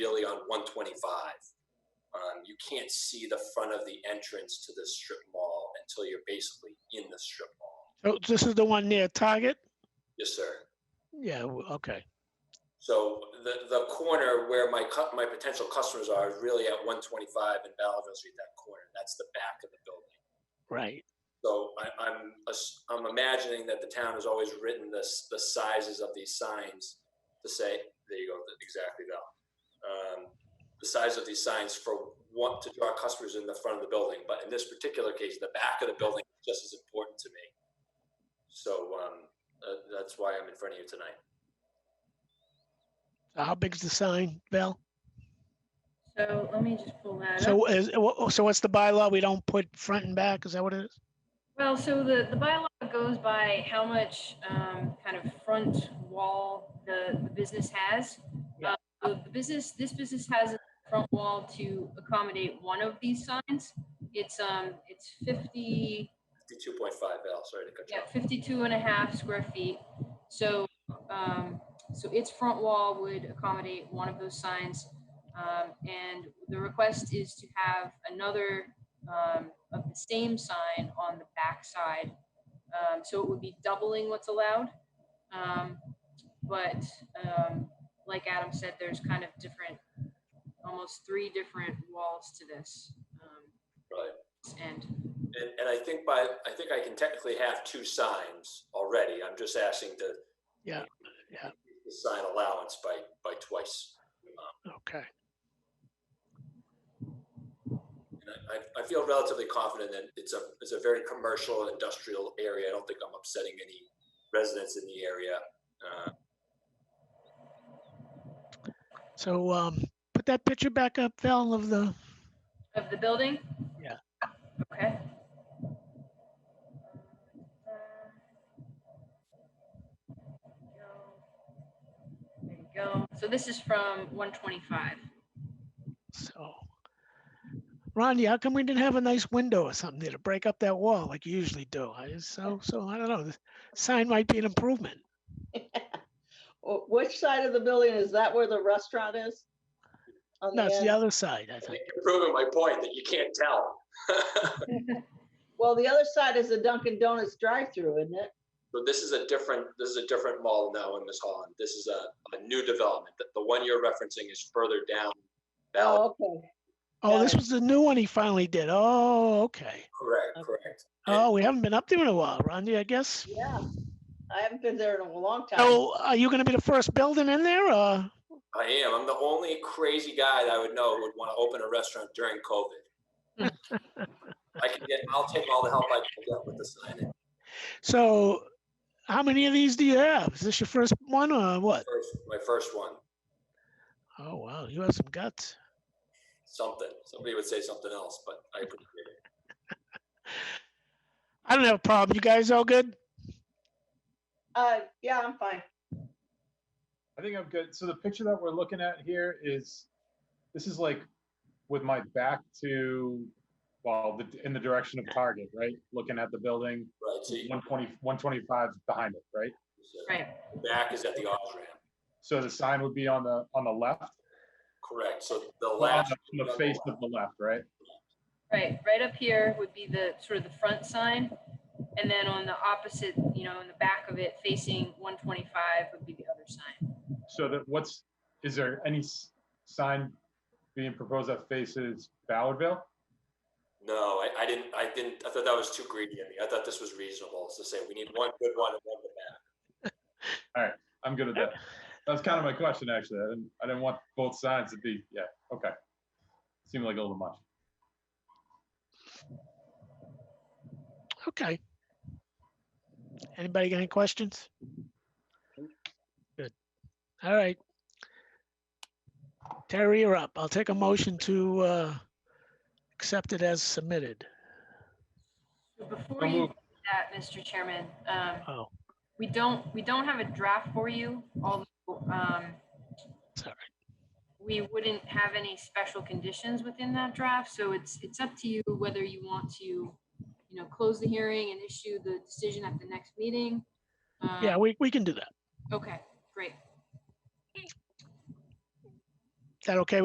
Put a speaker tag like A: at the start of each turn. A: really on 125. Um, you can't see the front of the entrance to the strip mall until you're basically in the strip mall.
B: So Oh, this is the one near Target?
A: Yes, sir.
B: Yeah, w- okay.
A: So the, the corner where my, cu- my potential customers are is really at 125 and Ballinger Street, that corner. That's the back of the building.
B: Right.
A: So I, I'm, ass- I'm imagining that the town has always written this, the sizes of these signs to say, there you go, th- exactly, Val. Um, The size of these signs for what, to draw customers in the front of the building, but in this particular case, the back of the building is just as important to me. So, um, uh, that's why I'm in front of you tonight.
B: So How big's the sign, Bill?
C: So let me just pull that up.
B: So is, wha- so what's the bylaw? We don't put front and back? Is that what it is?
C: Well, so the, the bylaw goes by how much um, kind of front wall the, the business has.
B: Yeah.
C: Uh, so The business, this business has a front wall to accommodate one of these signs. It's, um, it's 50,
A: Fifty-two point five, Val, sorry to cut you
C: Yeah,
A: off.
C: 52 and a half square feet. So, um, so its front wall would accommodate one of those signs. Um, and the request is to have another, um, of the same sign on the backside. Um, so it would be doubling what's allowed. Um, but, um, like Adam said, there's kind of different, almost three different walls to this. um,
A: Right.
C: And
A: And, and I think by, I think I can technically have two signs already. I'm just asking to.
B: Yeah, yeah.
A: the Sign allowance by, by twice.
B: Okay.
A: And I, I- I feel relatively confident that it's a, it's a very commercial and industrial area. I don't think I'm upsetting any residents in the area. Uh,
B: So, um, put that picture back up, Bill, of the,
C: Of the building?
B: Yeah.
C: Okay. There you go. So this is from 125.
B: so. Rodney, how come we didn't have a nice window or something there to break up that wall like you usually do? I just, so, so I don't know. The Sign might be an improvement.
D: Wh- Which side of the building? Is that where the restaurant is? On
B: No, it's the
D: end?
B: other side, I think.
A: You're Proving my point that you can't tell.
D: Well, the other side is the Dunkin' Donuts drive-through, isn't it?
A: But this is a different, this is a different mall now in Miss Holland. This is a, a new development. The, the one you're referencing is further down. Ballard,
D: Oh, okay.
B: Oh, this
D: Got it.
B: was the new one he finally did. Oh, okay.
A: correct,
D: Okay.
A: correct. And-
B: Oh, we haven't been up there in a while, Rodney, I guess.
D: Yeah. I haven't been there in a long time.
B: So are you gonna be the first building in there or?
A: I am. I'm the only crazy guy that I would know would want to open a restaurant during COVID. I can get, I'll take all the help I can get with the sign in
B: So how many of these do you have? Is this your first one or what?
A: first, my first one.
B: Oh, wow, you have some guts.
A: Something. Somebody would say something else, but I appreciate it.
B: I don't have a problem. You guys all good?
D: Uh, yeah, I'm fine.
E: I think I'm good. So the picture that we're looking at here is, this is like with my back to, well, the- in the direction of Target, right? Looking at the building,
A: Right. So you,
E: 120, 125 is behind it, right?
A: so
C: Right.
A: the back is at the off ramp.
E: So the sign would be on the, on the left,
A: Correct. So the
E: on the-
A: last.
E: on the face of the left, right?
C: Right. Right up here would be the sort of the front sign. And then on the opposite, you know, in the back of it facing 125 would be the other sign.
E: So that what's, is there any s- sign being proposed that faces Ballardville?
A: No, I, I didn't, I didn't, I thought that was too greedy of me. I thought this was reasonable. It's to say we need one good one and one bad.
E: I'm good at that. That's kind of my question, actually. I didn't, I didn't want both sides to be, yeah, okay. Seemed like a little much.
B: Okay. Anybody got any questions? Good. All right. Terry, you're up. I'll take a motion to uh, accept it as submitted.
C: So Before
E: So
C: you
E: moved.
C: do that, Mr. Chairman, um,
B: Oh,
C: We don't, we don't have a draft for you, although um,
B: sorry.
C: we wouldn't have any special conditions within that draft. So it's, it's up to you whether you want to, you know, close the hearing and issue the decision at the next meeting. Um,
B: Yeah, we, we can do that.
C: Okay, great.
B: that okay